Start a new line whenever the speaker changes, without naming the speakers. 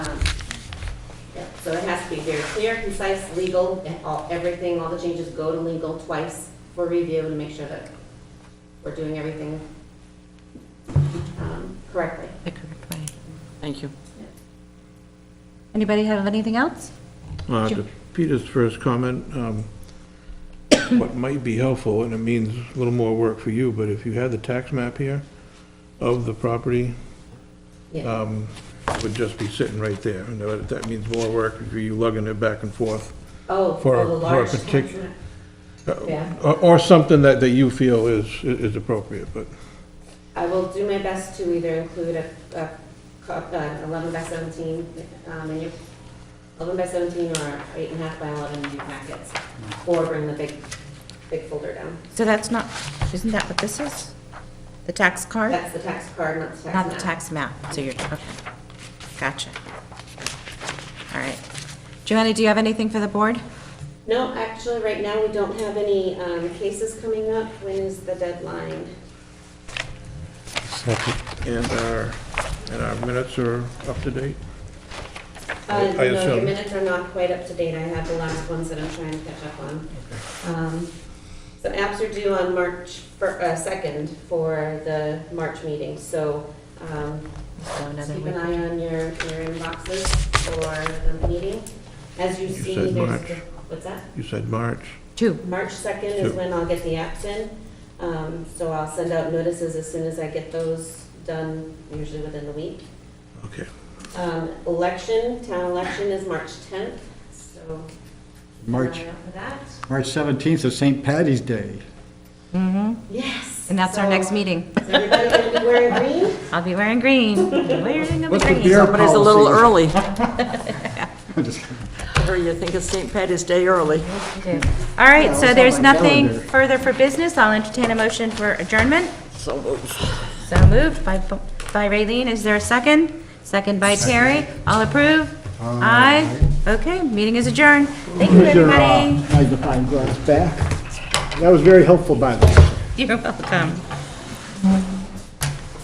Um, So it has to be very clear, concise, legal, and all, everything, all the changes go to legal twice for review to make sure that we're doing everything um, correctly.
the correct way.
Thank you.
Anybody have anything else?
Uh,
Sure.
to Peter's first comment, um, what might be helpful, and it means a little more work for you, but if you had the tax map here of the property,
Yeah.
um, it would just be sitting right there. And that that means more work for you lugging it back and forth.
Oh,
for
for
a-
the
for a
large.
partic-
contract.
uh,
Yeah.
Or, or something that, that you feel is, is appropriate, but
I will do my best to either include a, a, co- uh, eleven by seventeen, um, in your, eleven by seventeen or eight and a half by eleven in your packets, or bring the big, big folder down.
So that's not, isn't that what this is? The tax card?
That's the tax card, not the tax
Not the
map.
tax map, so you're, okay. Gotcha. All right. Joanna, do you have anything for the board?
No, actually, right now, we don't have any, um, cases coming up. When is the deadline?
and our, and our minutes are up to date.
Uh,
I- I
no, your
assume-
minutes are not quite up to date. I have the last ones that I'm trying to catch up on. Um, So apps are due on March fir- uh, 2nd for the March meeting, so um,
So another
keep
week.
an eye on your, your inboxes for the meeting. As you
You
see,
said
there's,
March.
the- what's that?
You said March.
Two.
March 2nd is
Yep.
when I'll get the apps in. Um, So I'll send out notices as soon as I get those done, usually within the week.
Okay.
Um, Election, town election is March 10th, so
March,
Line up for that.
March 17th is St. Patty's Day.
Mm-hmm.
Yes.
And that's our
So,
next meeting.
Is everybody going to be wearing green?
I'll be wearing green. Wearing a
What's the
green.
beer
But it's a little
policy?
early.
I'm just kidding.
Or you think it's St. Patty's Day early.
All right,
Yeah,
so
it's
there's
on my
nothing
calendar.
further for business. I'll entertain a motion for adjournment. So moved. So moved by, by Raylene. Is there a second? Second by Terry. All approve? Aye. Okay, meeting is adjourned. Thank you,
Your, uh,
everybody.
Magnifying glass back. That was very helpful, by the way.
You're welcome.